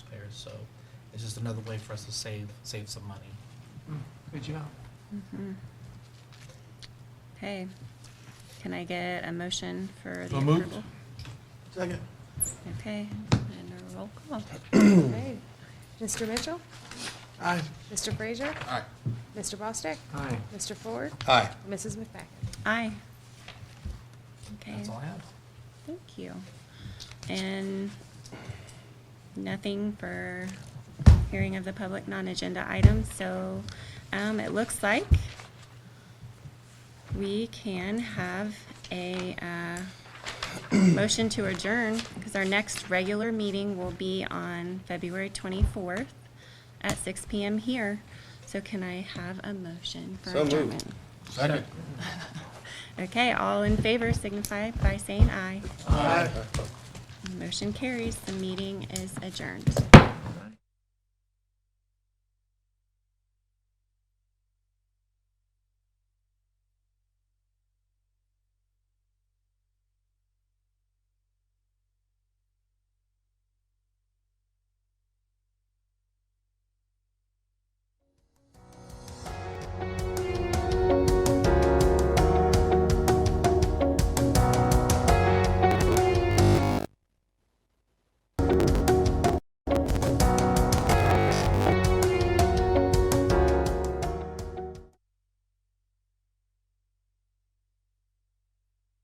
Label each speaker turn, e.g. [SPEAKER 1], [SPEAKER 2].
[SPEAKER 1] So it's just another way for us to save, save some money.
[SPEAKER 2] Good job.
[SPEAKER 3] Okay. Can I get a motion for the
[SPEAKER 2] So moved.
[SPEAKER 3] approval?
[SPEAKER 2] Second.
[SPEAKER 3] Okay, and a roll call. Great.
[SPEAKER 4] Mr. Mitchell?
[SPEAKER 2] Aye.
[SPEAKER 4] Mr. Frazier?
[SPEAKER 5] Aye.
[SPEAKER 4] Mr. Bostick?
[SPEAKER 2] Aye.
[SPEAKER 4] Mr. Ford?
[SPEAKER 5] Aye.
[SPEAKER 4] Mrs. McFadden?
[SPEAKER 3] Aye. Okay,
[SPEAKER 1] That's all I have.
[SPEAKER 3] thank you. And nothing for hearing of the public non-agenda items, so um, it looks like we can have a uh, motion to adjourn, because our next regular meeting will be on February 24th at 6 PM here. So can I have a motion for
[SPEAKER 5] So moved.
[SPEAKER 3] adjournment?
[SPEAKER 5] Second.
[SPEAKER 3] Okay, all in favor signify by saying aye.
[SPEAKER 2] Aye.
[SPEAKER 3] Motion carries, the meeting is adjourned.